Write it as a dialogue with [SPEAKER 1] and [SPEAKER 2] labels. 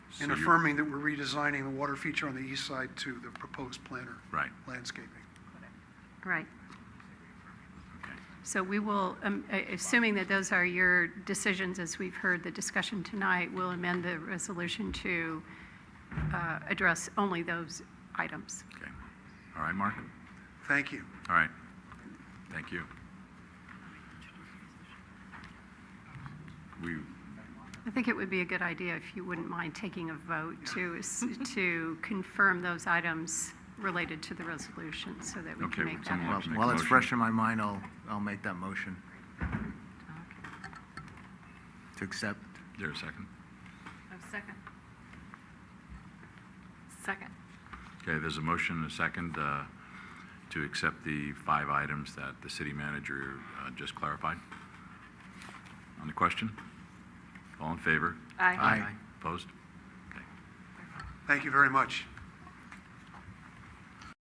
[SPEAKER 1] and
[SPEAKER 2] So you're-
[SPEAKER 1] affirming that we're redesigning the water feature on the east side to the proposed planner
[SPEAKER 2] Right,
[SPEAKER 1] landscaping.
[SPEAKER 3] Right.
[SPEAKER 2] okay.
[SPEAKER 3] So we will, um, a- assuming that those are your decisions, as we've heard the discussion tonight, we'll amend the resolution to uh, address only those items.
[SPEAKER 2] Okay. All right, Mark?
[SPEAKER 1] Thank you.
[SPEAKER 2] All right. Thank you. We,
[SPEAKER 3] I think it would be a good idea if you wouldn't mind taking a vote to, s- to confirm those items related to the resolution so that we
[SPEAKER 2] Okay,
[SPEAKER 3] can make that
[SPEAKER 2] someone-
[SPEAKER 4] Well,
[SPEAKER 2] Make a
[SPEAKER 4] While it's
[SPEAKER 2] motion.
[SPEAKER 4] fresh in my mind, I'll, I'll make that motion
[SPEAKER 3] happen.
[SPEAKER 4] to accept.
[SPEAKER 2] is there a second?
[SPEAKER 3] Second. Second.
[SPEAKER 2] Okay, there's a motion and a second uh, to accept the five items that the city manager uh, just clarified. On the question? All in favor?
[SPEAKER 4] Aye.
[SPEAKER 2] Opposed? Okay.
[SPEAKER 1] Thank you very much.